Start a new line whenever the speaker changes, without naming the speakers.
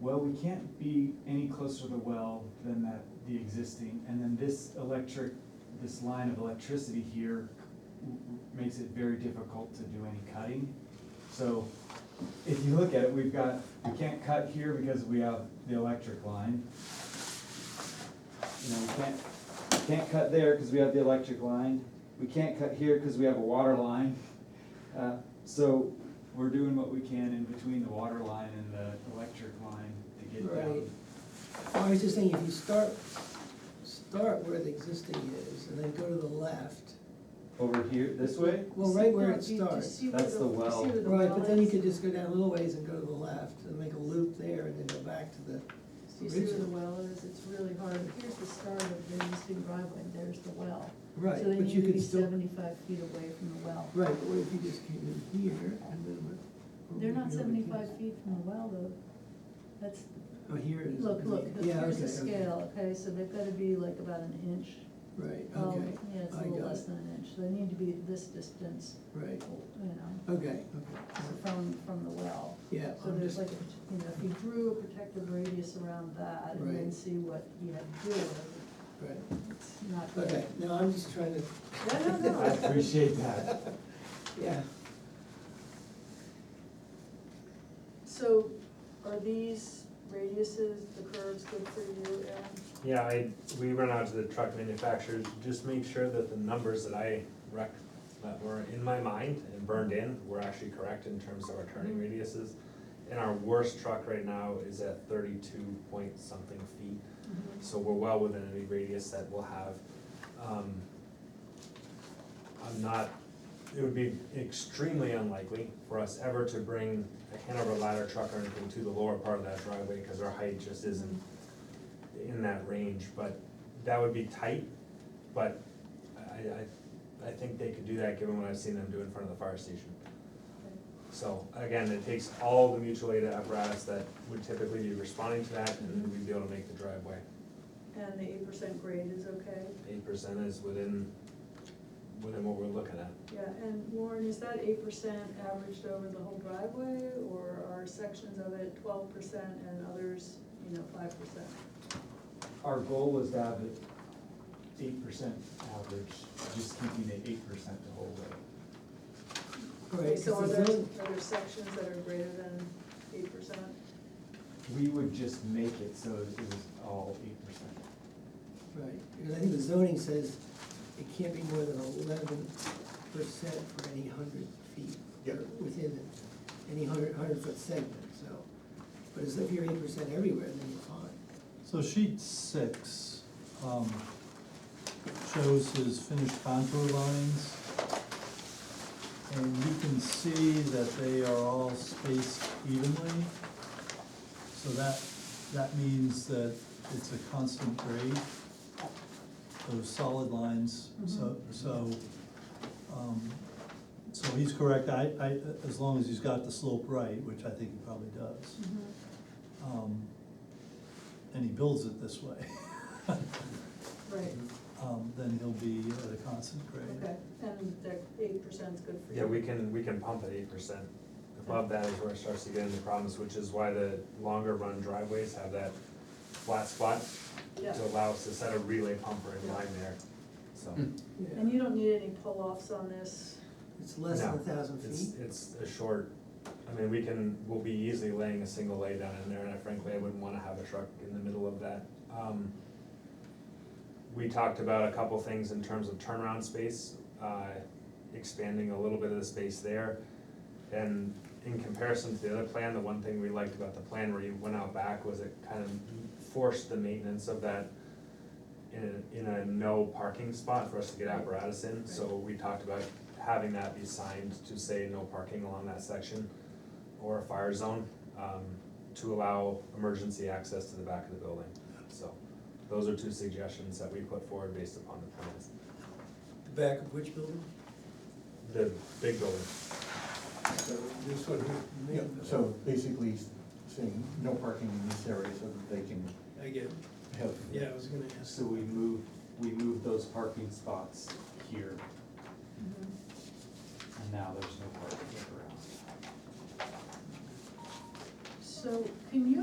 well, we can't be any closer to the well than that, the existing, and then this electric, this line of electricity here w- w- makes it very difficult to do any cutting. So if you look at it, we've got, we can't cut here because we have the electric line. You know, we can't, we can't cut there because we have the electric line. We can't cut here because we have a water line. Uh, So we're doing what we can in between the water line and the electric line to get down.
Right. I was just thinking, if you start, start where the existing is and then go to the left,
Over here, this way?
well, right where
No,
it
you- you
starts.
see where
That's the
you see
well.
where the
Right,
well
but then you
is?
could just go down a little ways and go to the left and make a loop there and then go back to the,
Do you see where the
original.
well is? It's really hard. Here's the start of the existing driveway, and there's the well.
right,
So then
but you
need to
could
be
still.
seventy-five feet away from the well.
Right, but what if you just came in here and then went? over
They're not
here?
seventy-five feet from the well, though. That's,
Oh, here it is.
look,
okay.
look,
Yeah,
here's the
okay, okay.
scale, okay, so they've gotta be like about an inch.
Right,
Oh,
okay,
Yeah, it's a
I
little
got
less
it.
than an inch, so they need to be at this distance,
right,
you know,
okay, okay,
from, from the well.
yeah,
So
I'm
there's
just,
like, a- you know, if you drew a protective radius around that and then
Right.
see what you have to do with
right,
it, it's not good.
okay, no, I'm just trying to,
No, no,
I
no,
appreciate that.
yeah.
so are these radiuses, the curves good for you, Aaron?
Yeah, I, we run out to the truck manufacturers, just make sure that the numbers that I rec, that were in my mind and burned in were actually correct in terms of our turning radiuses. And our worst truck right now is at thirty-two point something feet, so we're well within any radius that we'll have. Um, I'm not, it would be extremely unlikely for us ever to bring a Hanover ladder truck or anything to the lower part of that driveway, cause our height just isn't in that range, but that would be tight, but I, I, I think they could do that, given what I've seen them do in front of the fire station. So, again, it takes all the mutual aid apparatus that would typically be responding to that, and we'd be able to make the driveway.
And the eight percent grade is okay?
Eight percent is within, within what we're looking at.
Yeah, and Lauren, is that eight percent averaged over the whole driveway, or are sections of it twelve percent and others, you know, five percent?
Our goal was to have it eight percent average, just keeping it eight percent the whole way.
Right,
So are
'cause the
there,
zone-
are there sections that are greater than eight percent?
We would just make it so it was all eight percent.
Right, because I think the zoning says it can't be more than eleven percent for any hundred feet.
Yeah.
or Within any hundred, hundred foot segment, so, but as if you're eight percent everywhere, then you're fine.
So sheet six, um, shows his finished contour lines. And you can see that they are all spaced evenly. So that, that means that it's a constant grade, those solid lines, so, so, um, so he's correct, I, I, as long as he's got the slope right, which I think he probably does um, and he builds it this way,
Right,
um, then he'll be at a constant grade.
okay, and that eight percent's good for you?
Yeah, we can, we can pump at eight percent. Above that is where it starts to get into problems, which is why the longer run driveways have that flat spot
Yeah,
to allow us to set a relay pumper in line there, so.
and you don't need any pull-offs on this,
It's less than a
No,
thousand
It's,
feet,
it's a short, I mean, we can, we'll be easily laying a single lay down in there, and I frankly, I wouldn't wanna have a truck in the middle of that. Um, We talked about a couple things in terms of turnaround space, uh, expanding a little bit of the space there. And in comparison to the other plan, the one thing we liked about the plan where you went out back was it kind of forced the maintenance of that in a, in a no parking spot for us to get apparatus in, so we talked about having that be signed to say no parking along that section or a fire zone, um, to allow emergency access to the back of the building, so those are two suggestions that we put forward based upon the plans.
the back of which building?
The big building,
So this would,
Yeah.
so basically saying no parking in this area so that they can
I get,
have.
yeah, I was gonna ask.
So we moved, we moved those parking spots here,
Mm-hmm.
and now there's no parking around.
so can you